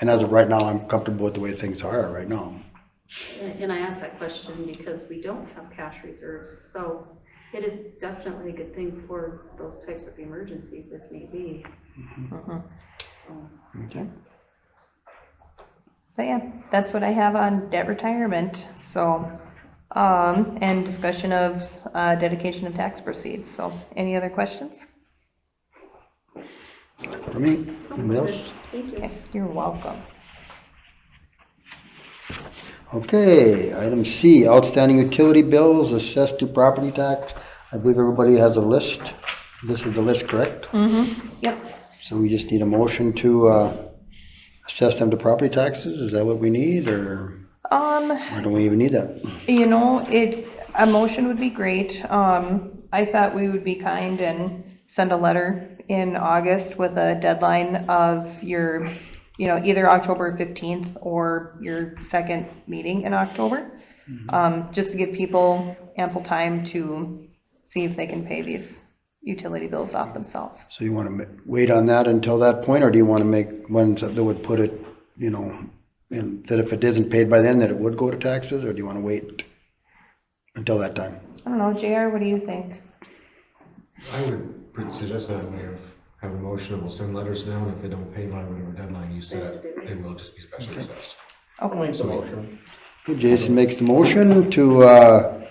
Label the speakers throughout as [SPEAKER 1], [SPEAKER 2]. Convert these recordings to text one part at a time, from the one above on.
[SPEAKER 1] And as of right now, I'm comfortable with the way things are right now.
[SPEAKER 2] And and I ask that question because we don't have cash reserves, so it is definitely a good thing for those types of emergencies if need be.
[SPEAKER 1] Okay.
[SPEAKER 3] But yeah, that's what I have on debt retirement, so, um, and discussion of, uh, dedication of tax proceeds, so, any other questions?
[SPEAKER 1] For me, anybody else?
[SPEAKER 2] Thank you.
[SPEAKER 3] Okay, you're welcome.
[SPEAKER 1] Okay, item C, outstanding utility bills assessed to property tax. I believe everybody has a list. This is the list, correct?
[SPEAKER 3] Mm-hmm, yep.
[SPEAKER 1] So we just need a motion to uh, assess them to property taxes? Is that what we need, or
[SPEAKER 3] Um,
[SPEAKER 1] or don't we even need that?
[SPEAKER 3] you know, it, a motion would be great, um, I thought we would be kind and send a letter in August with a deadline of your, you know, either October fifteenth or your second meeting in October. um, just to give people ample time to see if they can pay these utility bills off themselves.
[SPEAKER 1] So you want to wait on that until that point, or do you want to make ones that would put it, you know, in- that if it isn't paid by then, that it would go to taxes, or do you want to wait until that time?
[SPEAKER 3] I don't know, JR, what do you think?
[SPEAKER 4] I would pr- suggest that way of have a motion, and we'll send letters now, and if they don't pay by whatever deadline you set, they will just be special assessed.
[SPEAKER 3] Okay,
[SPEAKER 4] So motion.
[SPEAKER 1] Jason makes the motion to, uh,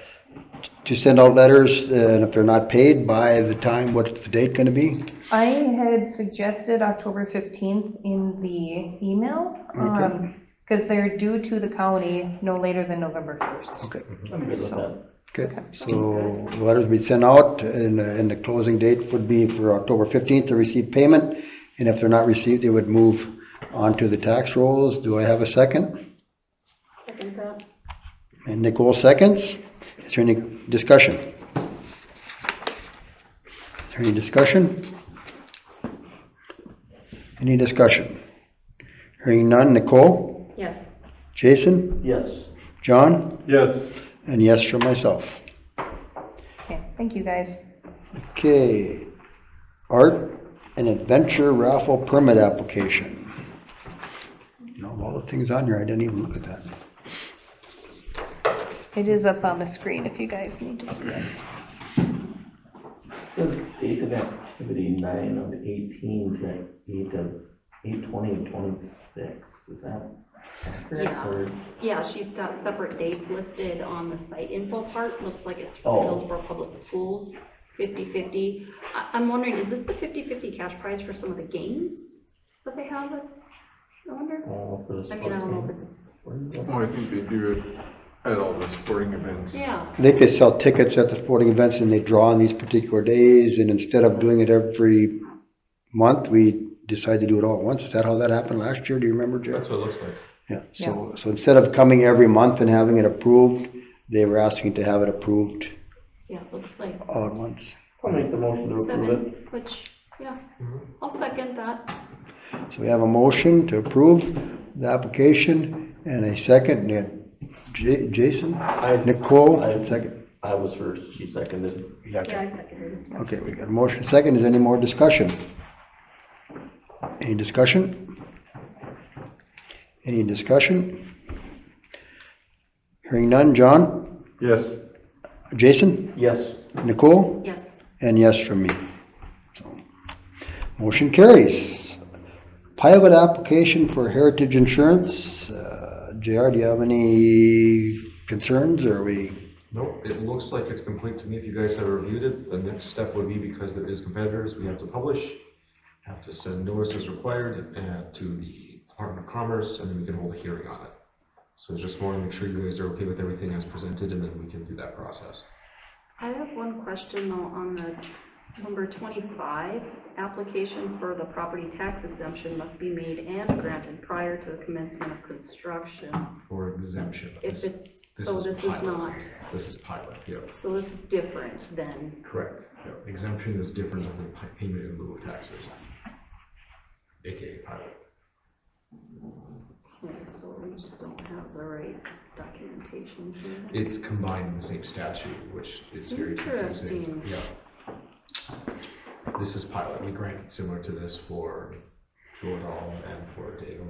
[SPEAKER 1] to send out letters, and if they're not paid by the time, what's the date going to be?
[SPEAKER 3] I had suggested October fifteenth in the email, um, because they're due to the county no later than November first.
[SPEAKER 1] Okay.
[SPEAKER 3] So,
[SPEAKER 1] Okay,
[SPEAKER 3] Okay.
[SPEAKER 1] so the letters be sent out, and, uh, and the closing date would be for October 15th to receive payment, and if they're not received, they would move on to the tax rolls. Do I have a second?
[SPEAKER 2] Second thought.
[SPEAKER 1] And Nicole seconds. Is there any discussion? Is there any discussion? Any discussion? Hearing none. Nicole?
[SPEAKER 2] Yes,
[SPEAKER 1] Jason?
[SPEAKER 5] Yes.
[SPEAKER 1] John?
[SPEAKER 5] Yes.
[SPEAKER 1] And yes for myself.
[SPEAKER 3] okay, thank you, guys.
[SPEAKER 1] Okay, art and adventure raffle permit application. You know, of all the things on here, I didn't even look at that.
[SPEAKER 3] It is up on the screen if you guys need to see it.
[SPEAKER 5] So date of activity nine of eighteen to eight of, eight twenty of twenty-six, is that? accurate,
[SPEAKER 2] Yeah.
[SPEAKER 5] or-
[SPEAKER 2] yeah, she's got separate dates listed on the site info part, looks like it's
[SPEAKER 5] Oh.
[SPEAKER 2] for Hillsborough Public Schools, 50/50. I, I'm wondering, is this the 50/50 cash prize for some of the games that they have? I wonder,
[SPEAKER 5] Oh, for the
[SPEAKER 2] I mean, I
[SPEAKER 5] sports
[SPEAKER 2] don't know if
[SPEAKER 5] team?
[SPEAKER 2] it's,
[SPEAKER 5] Where is that?
[SPEAKER 6] Well, I think they do it at all the sporting events.
[SPEAKER 2] yeah,
[SPEAKER 1] I think they sell tickets at the sporting events and they draw on these particular days, and instead of doing it every month, we decide to do it all at once. Is that how that happened last year? Do you remember,
[SPEAKER 4] That's
[SPEAKER 1] Jeff?
[SPEAKER 4] what it looks like.
[SPEAKER 1] Yeah, so, so instead of coming every month and having it approved, they were asking to have it approved
[SPEAKER 2] yeah, it looks like
[SPEAKER 1] all at once.
[SPEAKER 5] I'll make the motion to approve it.
[SPEAKER 2] seven, which, yeah, I'll second that.
[SPEAKER 1] So we have a motion to approve the application and a second, and J- Jason,
[SPEAKER 5] I,
[SPEAKER 1] Nicole,
[SPEAKER 5] Aye.
[SPEAKER 1] second.
[SPEAKER 5] I was first, she seconded.
[SPEAKER 1] You got
[SPEAKER 2] Yeah,
[SPEAKER 1] that?
[SPEAKER 2] I seconded it.
[SPEAKER 1] Okay, we got a motion second. Is there any more discussion? Any discussion? Any discussion? Hearing none. John,
[SPEAKER 6] Yes.
[SPEAKER 1] Jason,
[SPEAKER 5] Yes.
[SPEAKER 1] Nicole?
[SPEAKER 2] Yes,
[SPEAKER 1] And yes from me. So, Motion carries. Pilot application for Heritage Insurance. Uh, JR, do you have any concerns or are we?
[SPEAKER 4] Nope, it looks like it's complete to me. If you guys have reviewed it, the next step would be because there is competitors, we have to publish, have to send notices required uh, to the Department of Commerce, and then we can hold a hearing on it. So just want to make sure you guys are okay with everything as presented, and then we can do that process.
[SPEAKER 2] I have one question though on the number twenty-five. Application for the property tax exemption must be made and granted prior to the commencement of construction.
[SPEAKER 4] For exemption.
[SPEAKER 2] If
[SPEAKER 4] This-
[SPEAKER 2] it's,
[SPEAKER 4] this
[SPEAKER 2] so this is
[SPEAKER 4] pilot.
[SPEAKER 2] not,
[SPEAKER 4] This is pilot, yeah.
[SPEAKER 2] so this is different than,
[SPEAKER 4] Correct. Yep. Exemption is different than the pi- payment in lieu of taxes. AKA pilot.
[SPEAKER 2] okay, so we just don't have the right documentation here.
[SPEAKER 4] It's combined in the same statute, which is very confusing.
[SPEAKER 2] Interesting.
[SPEAKER 4] Yeah. This is pilot. We granted similar to this for Jordan and for Dave